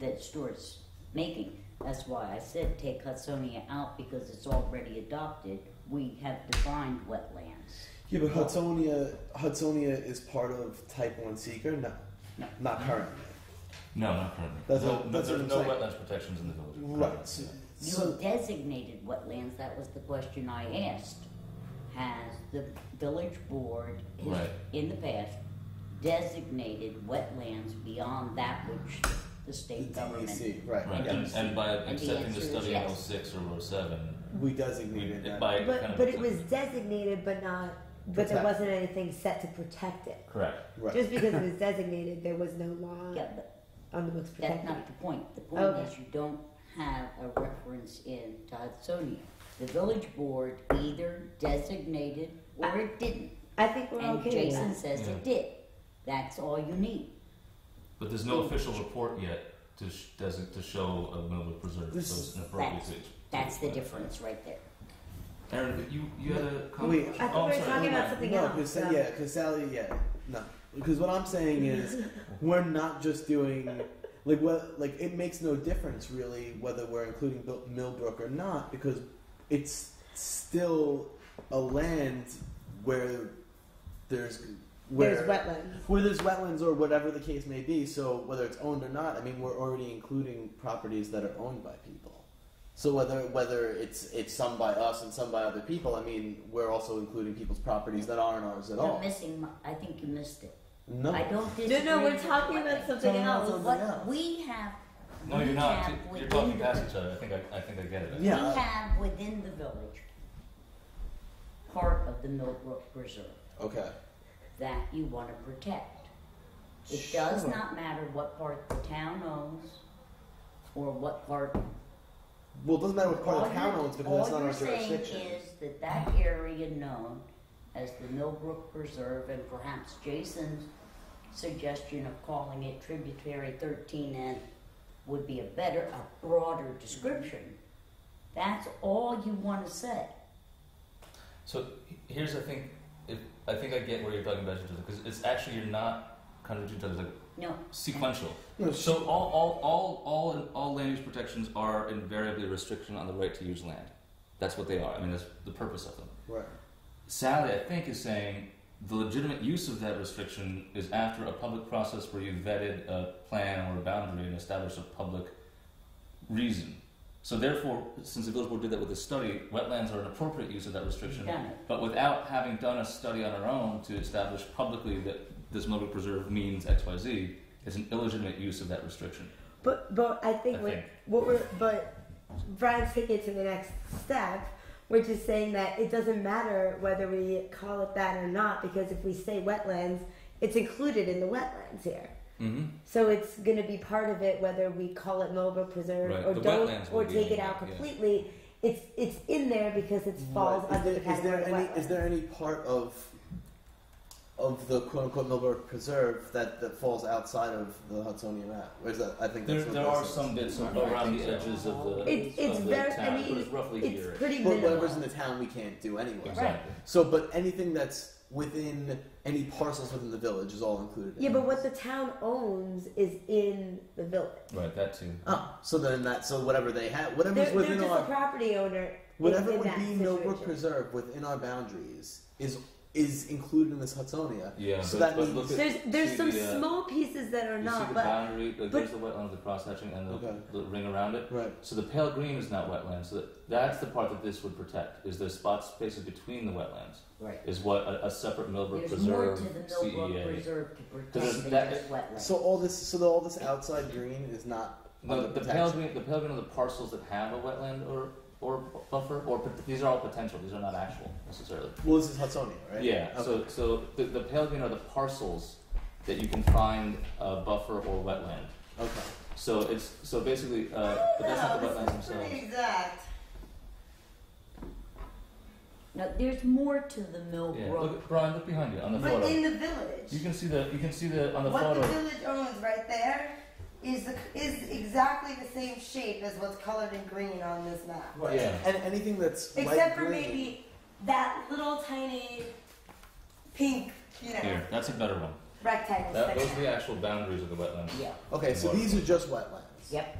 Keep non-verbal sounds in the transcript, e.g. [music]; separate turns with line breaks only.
that Stuart's making. That's why I said take Hudsonia out because it's already adopted. We have defined wetlands.
Yeah, but Hudsonia, Hudsonia is part of Type One Seeker. No,
No.
not currently.
No, not currently.
That's
no,
what-
no,
that's what
there's
I'm
no
saying.
wetlands protections in the village.
Right. So,
You designated wetlands, that was the question I asked. Has the village board has-
Right.
in the past designated wetlands beyond that which the state
the E
government?
DEC, right?
Right.
yeah.
And, and by
the
accepting
answer
the
is
study
yes.
in 06 or 07,
We
we,
designated
it,
that.
by kind
But
of
but it was
accepting-
designated, but not. But there
Protect.
wasn't anything set to protect it.
correct.
right.
Just because it was designated, there was no law
Yeah, but
on the books
that's
protecting
not
it.
the point. The point
Okay.
is you don't have a reference in to Hudsonia. The village board either designated or it didn't.
I think we're
And
okay with
Jason
that.
says
Yeah.
it did. That's all you need.
But there's no official report yet to sh- does it to show a Millwood preserve,
This-
so it's an appropriate
that's-
to- to
That's the
explain.
difference right there.
Aaron, you you had a comment.
Wait,
I
oh,
thought we were
sorry.
talking about
Right.
something
no,
else.
because
so-
yeah, because Sally, yeah, no, because what I'm saying
[laughs]
is we're not just doing like what like it makes no difference really whether we're including Bil- Millbrook or not because it's still a land where there's where
There's wetlands.
where there's wetlands or whatever the case may be. So whether it's owned or not, I mean, we're already including properties that are owned by people. So whether whether it's it's some by us and some by other people, I mean, we're also including people's properties that aren't ours at
You're
all.
missing. My, I think you missed it.
No,
I don't disagree.
No, no, we're
with
talking
what-
about something
Talking about
else.
something
What
else.
we have.
No,
we
you're not.
have
You're
within
talking
the-
past each other. I think I, I think I get it.
We
Yeah. I-
have within the village part of the Millbrook Reserve
uh, Okay.
that you want to protect. It does
Sure.
not matter what part the town owns or what part
Well, it doesn't matter what part
All
of town
you're-
owns because that's
all
not our
you're saying
jurisdiction.
Is that that area known as the Millbrook Preserve and perhaps Jason's suggestion of calling it tributary thirteen N would be a better, a broader description. That's all you wanna say.
So he- here's I think if I think I get where you're talking about each other because it's actually you're not contradicting each other. It's like
No,
sequential.
No,
So all all all all all land use protections are invariably a restriction on the right to use land. That's what they are. I mean, that's the purpose of them.
Right.
Sally, I think, is saying the legitimate use of that restriction is after a public process where you vetted a plan or a boundary and established a public reason. So therefore, since the village board did that with the study, wetlands are an appropriate use of that restriction.
done it.
But without having done a study on our own to establish publicly that this mobile preserve means X, Y, Z, it's an illegitimate use of that restriction.
But but I think
I
what,
think.
what we're but Brian's taking it to the next step, which is saying that it doesn't matter whether we call it that or not, because if we say wetlands, it's included in the wetlands here.
Mm-hmm.
So it's going to be part of it whether we call it Mobile Preserve
Right,
or
the
don't
wetlands will
or
be
take
in
it
it,
out
yeah.
completely. It's it's in there because it falls
Right.
under
is
the
there, is
category
there
of
any
wetlands.
is there any part of of the quote unquote Millbrook Preserve that, that falls outside of the Hudsonia map? Or is that I think
There,
that's what
there
that
are
says.
some bits of,
Right.
around the edges of the,
It's- it's
of the
very- I
town,
mean,
but it's roughly here.
It's pretty
But
minimal.
whatever's in the town, we can't do anyway.
Exactly.
So, but anything that's within any parcels within the village is all included. in
yeah,
it.
but what the town owns is in the village.
Right, that too.
Oh, so then that so whatever they have, whatever's
They're, they're
within
just a
our
property owner.
whatever
in
would
that
be Millbrook
situation.
Preserve within our boundaries is is included in this Hudsonia.
Yeah,
So
but-
that
but
means
look at-
There's there's
See
some
the, uh,
small pieces that are
You see
not,
the
but
boundary, like
but-
there's the wetland, the cross hatching, and the,
Okay.
the ring around it.
right.
So the pale green is not wetland. So that, that's the part that this would protect. Is the spot spaces between the wetlands
right.
is what a, a separate Millbrook
There's more
Preserve E
to the Millbrook
CEA.
Preserve to
Because
protect than
that-
just wetlands.
So all this so the, all this outside green is not
The,
under
the pale
protection.
green, the pale green are the parcels that have a wetland or or bu- buffer, or pot- these are all potential. These are not actual necessarily.
Well, this is Hudsonia, right?
Yeah.
Okay.
So so the, the pale green are the parcels that you can find a buffer or wetland.
okay.
So it's so basically, uh, but that's not the wetlands themselves.
exact.
No, there's more to the
Yeah,
Millbrook.
look, Brian, look behind you on the photo.
the village,
You can see the you can see the on the photo.
village owns right there is the, is exactly the same shape as what's colored in green on this map.
Right.
Yeah.
And anything that's light
Except for
green-
maybe that little tiny pink, you know,
Here, that's a better one.
rectangle
That, those are
section.
the actual boundaries of the wetlands.
Yeah,
Okay, so
Water.
these are just wetlands.
Yep.